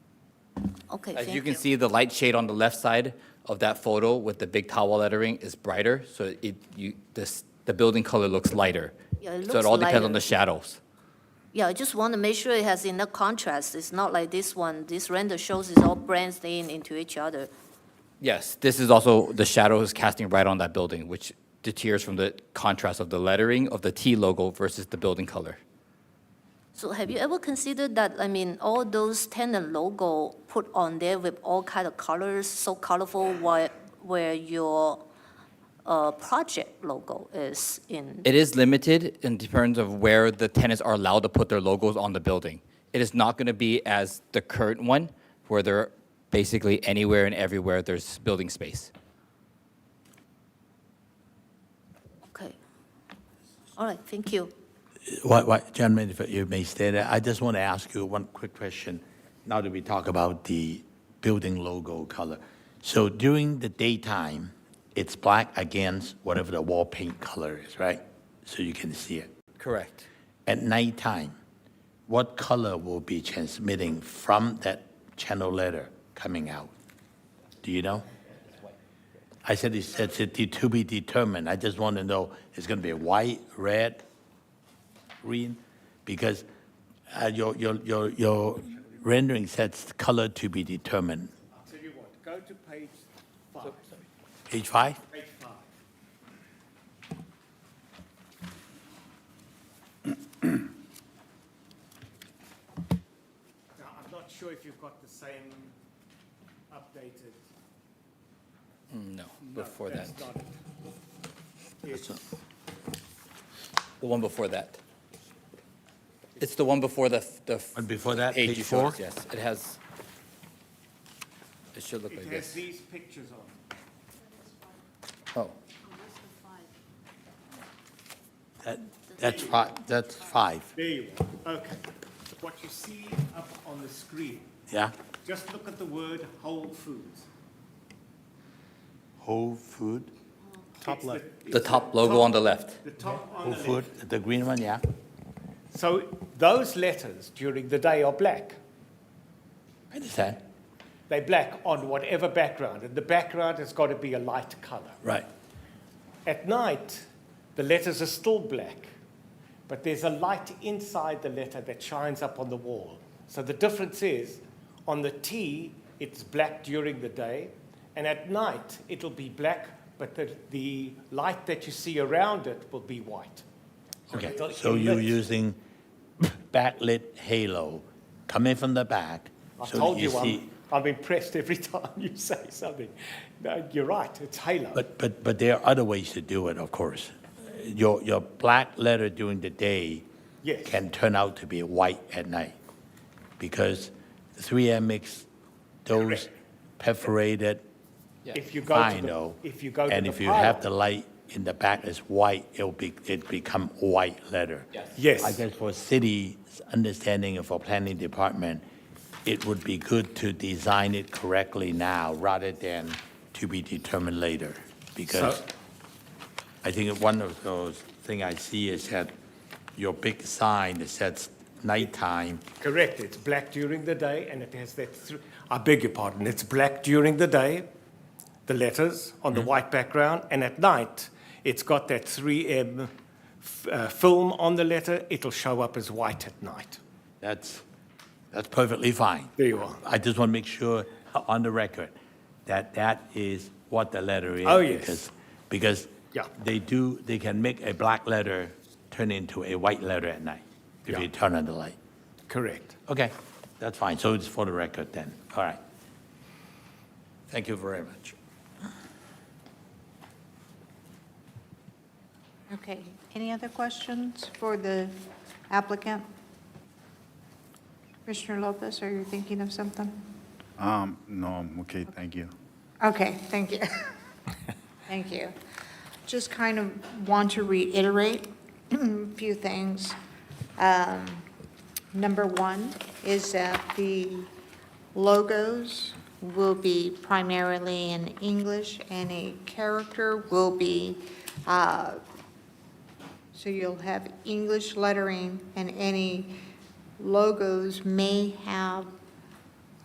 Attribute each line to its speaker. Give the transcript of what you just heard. Speaker 1: Okay,
Speaker 2: As you
Speaker 1: thank
Speaker 2: can
Speaker 1: you.
Speaker 2: see, the light shade on the left side of that photo with the big towel lettering is brighter, so it, you, this, the building color looks lighter.
Speaker 1: Yeah, it
Speaker 2: So it
Speaker 1: looks
Speaker 2: all depends on
Speaker 1: lighter.
Speaker 2: the shadows.
Speaker 1: Yeah, I just want to make sure it has enough contrast. It's not like this one. This render shows is all branched in into each other.
Speaker 2: Yes, this is also, the shadow is casting right on that building, which deteriorates from the contrast of the lettering of the T logo versus the building color.
Speaker 1: So have you ever considered that, I mean, all those tenant logo put on there with all kind of colors, so colorful, while, where your, uh, project logo is in?
Speaker 2: It is limited in terms of where the tenants are allowed to put their logos on the building. It is not going to be as the current one, where they're basically anywhere and everywhere there's building space.
Speaker 1: Okay. All right, thank you.
Speaker 3: Why, why, gentlemen, if you may stay there, I just want to ask you one quick question. Now that we talk about the building logo color. So during the daytime, it's black against whatever the wall paint color is, right? So you can see it.
Speaker 2: Correct.
Speaker 3: At nighttime, what color will be transmitting from that channel letter coming out? Do you know? I said it's, it's to be determined. I just want to know, it's going to be white, red, green? Because uh, your, your, your, your rendering sets color to be determined.
Speaker 4: Tell you what, go to page five,
Speaker 3: Page five?
Speaker 4: page five. Now, I'm not sure if you've got the same updated.
Speaker 2: No, before
Speaker 4: No,
Speaker 2: that.
Speaker 4: that's not it. It's-
Speaker 2: The one before that. It's the one before the, f- the. f-
Speaker 3: One before that,
Speaker 2: page
Speaker 3: page
Speaker 2: you showed us,
Speaker 3: four?
Speaker 2: Yes, it has. It should look
Speaker 4: It
Speaker 2: like
Speaker 4: has
Speaker 2: this.
Speaker 4: these pictures on it.
Speaker 2: Oh,
Speaker 3: That, that's five, that's five,
Speaker 4: There you are, okay. What you see up on the screen,
Speaker 3: yeah?
Speaker 4: just look at the word Whole Foods.
Speaker 3: Whole food,
Speaker 4: Top left.
Speaker 2: the top logo on the left.
Speaker 4: The top on
Speaker 3: whole
Speaker 4: the left.
Speaker 3: food, the green one, yeah?
Speaker 4: So those letters during the day are black.
Speaker 3: I understand.
Speaker 4: They're black on whatever background, and the background has got to be a light color.
Speaker 3: Right.
Speaker 4: At night, the letters are still black, but there's a light inside the letter that shines up on the wall. So the difference is on the T, it's black during the day, and at night, it'll be black, but the, the light that you see around it will be white.
Speaker 3: Okay,
Speaker 4: Got it
Speaker 3: so you're
Speaker 4: lit.
Speaker 3: using backlit halo coming from the back.
Speaker 4: I
Speaker 3: so that
Speaker 4: told you,
Speaker 3: see-
Speaker 4: I'm, I'm impressed every time you say something. No, you're right, it's halo.
Speaker 3: But, but, but there are other ways to do it, of course. Your, your black letter during the day
Speaker 4: Yes.
Speaker 3: can turn out to be white at night because 3M makes those perforated
Speaker 4: If you go to
Speaker 3: vinyl.
Speaker 4: the, if you go to the
Speaker 3: And if you have the
Speaker 4: pylon.
Speaker 3: light in the back as white, it'll be, it become white letter. I
Speaker 4: Yes,
Speaker 3: guess for city's understanding and for planning department, it would be good to design it correctly now rather than to be determined later. Because I think one of those thing I see is that your big sign that says nighttime,
Speaker 4: correct, it's black during the day and it has that, thr- I beg your pardon, it's black during the day, the letters on
Speaker 3: Hmm.
Speaker 4: the white background, and at night, it's got that 3M f- uh, film on the letter, it'll show up as white at night.
Speaker 3: that's, that's perfectly fine.
Speaker 4: There you are.
Speaker 3: I just want to make sure uh, on the record that that is what the letter is.
Speaker 4: Oh, yes.
Speaker 3: because- Because
Speaker 4: Yeah.
Speaker 3: they do, they can make a black letter turn into a white letter at night if you
Speaker 4: Yeah.
Speaker 3: turn on the light.
Speaker 4: Correct.
Speaker 3: Okay, that's fine. So it's for the record then. All right. Thank you very much.
Speaker 5: Okay, any other questions for the applicant? Commissioner Lopez, are you thinking of something?
Speaker 6: Um, no, I'm okay, thank you.
Speaker 5: Okay, thank you. Thank you. Just kind of want to reiterate a few things. Um, Number one is that the logos will be primarily in English, and a character will be uh, So you'll have English lettering, and any logos may have